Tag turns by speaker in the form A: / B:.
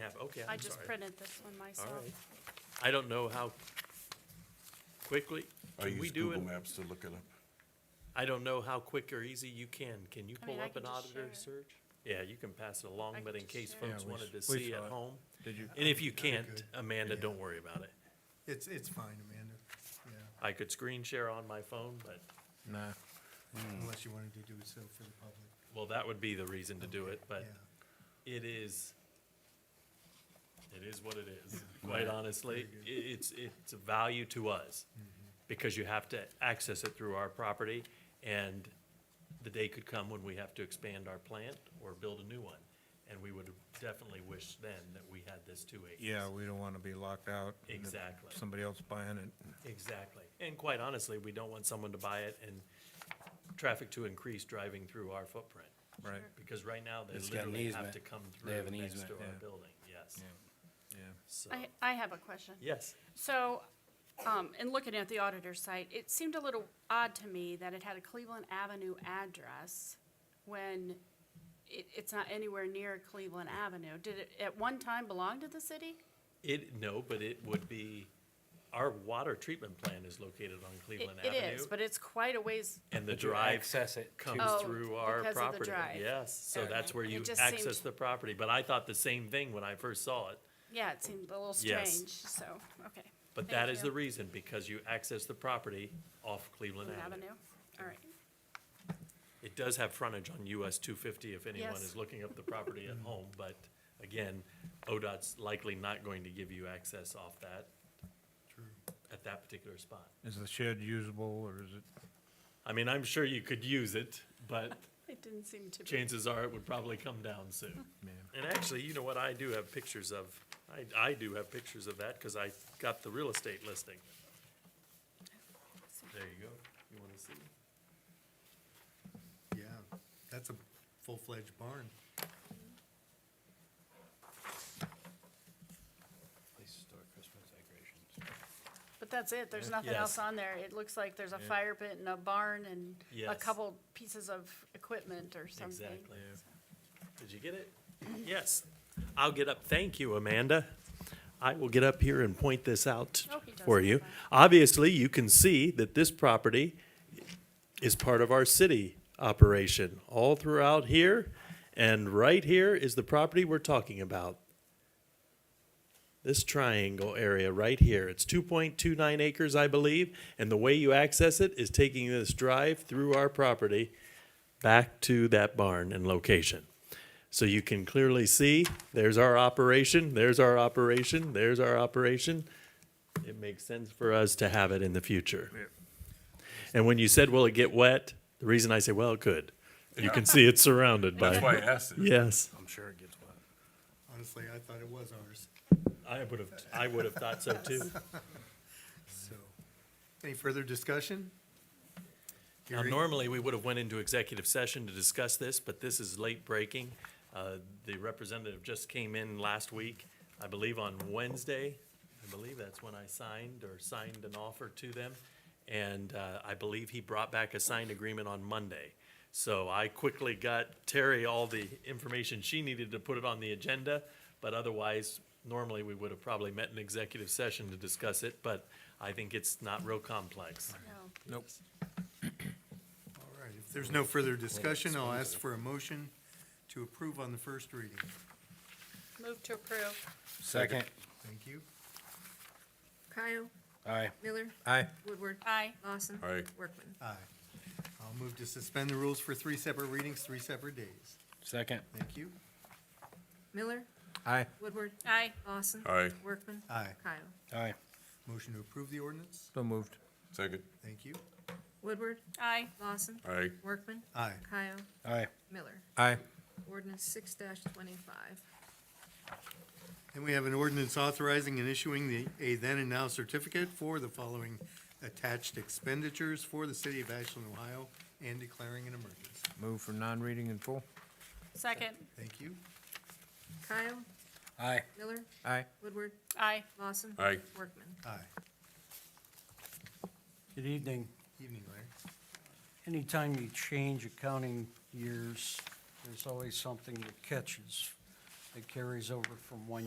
A: have, okay,
B: I
A: I'm
B: just
A: sorry.
B: printed this one
A: All
B: myself.
A: right. I don't know how quickly,
C: I
A: can we
C: use
A: do
C: Oh, Google
A: it?
C: Maps to look it up.
A: I don't know how quick or easy you can. Can you
B: I mean,
A: pull
B: I
A: up
B: can
A: an
B: just
A: auditor
B: share
A: search? Yeah, you can pass it along,
B: I
A: but
B: can
A: in
B: just
A: case
B: share it.
A: folks
D: Yeah, we
A: wanted to
D: s- we
A: see at
D: saw it.
A: home.
D: Did you?
A: And if you can't,
E: good.
A: Amanda,
D: Yeah.
A: don't worry about it.
E: It's, it's fine, Amanda, yeah,
A: I could screen share on my phone, but,
D: Nah.
E: unless you wanted to do it so for the public.
A: well, that would be the reason to do it, but
E: Yeah,
A: it is, it is what it is, quite honestly. I- It's, it's a value to us, because you have to access it through our property, and the day could come when we have to expand our plant or build a new one. And we would definitely wish then that we had this two acres.
D: Yeah, we don't want to be locked out. and if
A: Exactly.
D: Somebody else buying it.
A: Exactly. And quite honestly, we don't want someone to buy it and traffic to increase driving through our footprint.
D: Right.
A: Because right now, they
F: It's got an
A: literally have
F: easement.
A: to come
F: They
A: through
F: have an
A: next
F: easement,
A: to our
D: yeah.
A: building, yes.
D: Yeah.
A: So,
B: I, I have a question.
A: yes,
B: So, um, in looking at the auditor's site, it seemed a little odd to me that it had a Cleveland Avenue address when it, it's not anywhere near Cleveland Avenue. Did it at one time belong to the city?
A: it, no, but it would be, our water treatment plant is located on
B: It,
A: Cleveland
B: it
A: Avenue.
B: is, but it's quite a ways,
A: And the
F: But you
A: drive
F: Access it to,
B: Oh,
A: comes through our
B: because of the
A: property,
B: drive.
A: yes. So
B: Okay.
A: that's where
B: It
A: you
B: just seemed-
A: access the property. But I thought the same thing when I first saw it.
B: yeah, it seemed a little
A: Yes.
B: strange, so, okay.
A: But
B: Thank
A: that is
B: you.
A: the reason, because you access the property off Cleveland
B: Cleveland
A: Avenue.
B: Avenue, all right.
A: It does have frontage on US two fifty if anyone
B: Yes.
A: is looking up the property at home, but again, ODOT's likely not going to give you access off that
E: true.
A: at that particular spot.
D: Is the shed usable or is it?
A: I mean, I'm sure you could use it, but
B: It didn't seem to be.
A: chances are it would probably come down soon.
D: Yeah.
A: And actually, you know what, I do have pictures of, I, I do have pictures of that, cause I got the real estate listing. There you go, you wanna see?
E: Yeah, that's a full-fledged barn.
F: place to store Christmas decorations.
B: But that's it, there's nothing
A: Yes.
B: else on there. It looks like there's a fire pit and a barn and a
A: Yes.
B: couple pieces of equipment or something.
A: Exactly. Did you get it? Yes. I'll get up. Thank you, Amanda. I will get up here and point this out
B: Oh, he does
A: for
B: have
A: you.
B: that.
A: Obviously, you can see that this property is part of our city operation all throughout here. And right here is the property we're talking about. This triangle area right here, it's two point two nine acres, I believe. And the way you access it is taking this drive through our property back to that barn and location. So you can clearly see, there's our operation, there's our operation, there's our operation. It makes sense for us to have it in the future. And when you said, will it get wet? The reason I say, well, it could. You can see it's surrounded
C: That's why I
A: by,
C: asked it.
A: yes.
F: I'm sure it gets wet.
E: Honestly, I thought it was ours,
A: I would have, I would have thought so too.
E: so. Any further discussion?
A: Now,
E: Hearing-
A: normally, we would have went into executive session to discuss this, but this is late breaking. Uh, The representative just came in last week, I believe on Wednesday. I believe that's when I signed or signed an offer to them. And uh, I believe he brought back a signed agreement on Monday. So I quickly got Terry all the information she needed to put it on the agenda. But otherwise, normally, we would have probably met in executive session to discuss it, but I think it's not real complex.
B: No.
D: Nope.
E: All right, if there's no further discussion, I'll ask for a motion to approve on the first reading.
B: Move to approve.
F: Second.
E: Thank you.
G: Kyle,
F: Aye.
G: Miller,
D: Aye.
G: Woodward,
B: Aye.
G: Lawson.
C: Aye.
G: Workman.
E: Aye. I'll move to suspend the rules for three separate readings, three separate days.
F: Second.
E: Thank you.
G: Miller,
D: Aye.
G: Woodward,
B: Aye.
G: Lawson.
C: Aye.
G: Workman.
E: Aye.
G: Kyle,
F: Aye.
E: Motion to approve the ordinance?
D: So moved.
C: Second.
E: Thank you.
G: Woodward,
B: Aye.
G: Lawson.
C: Aye.
G: Workman.
E: Aye.
G: Kyle,
F: Aye.
G: Miller.
D: Aye.
G: Ordinance six twenty-five.
E: And we have an ordinance authorizing and issuing the, a then and now certificate for the following attached expenditures for the city of Ashland, Ohio, and declaring an emergency.
D: Move for non-reading in full.
B: Second.
E: Thank you.
G: Kyle,
F: Aye.
G: Miller,
D: Aye.
G: Woodward,
B: Aye.
G: Lawson.
C: Aye.
G: Workman.
E: Aye.
H: Good evening.
E: Evening, Larry.
H: Anytime you change accounting years, there's always something that catches, that carries over from one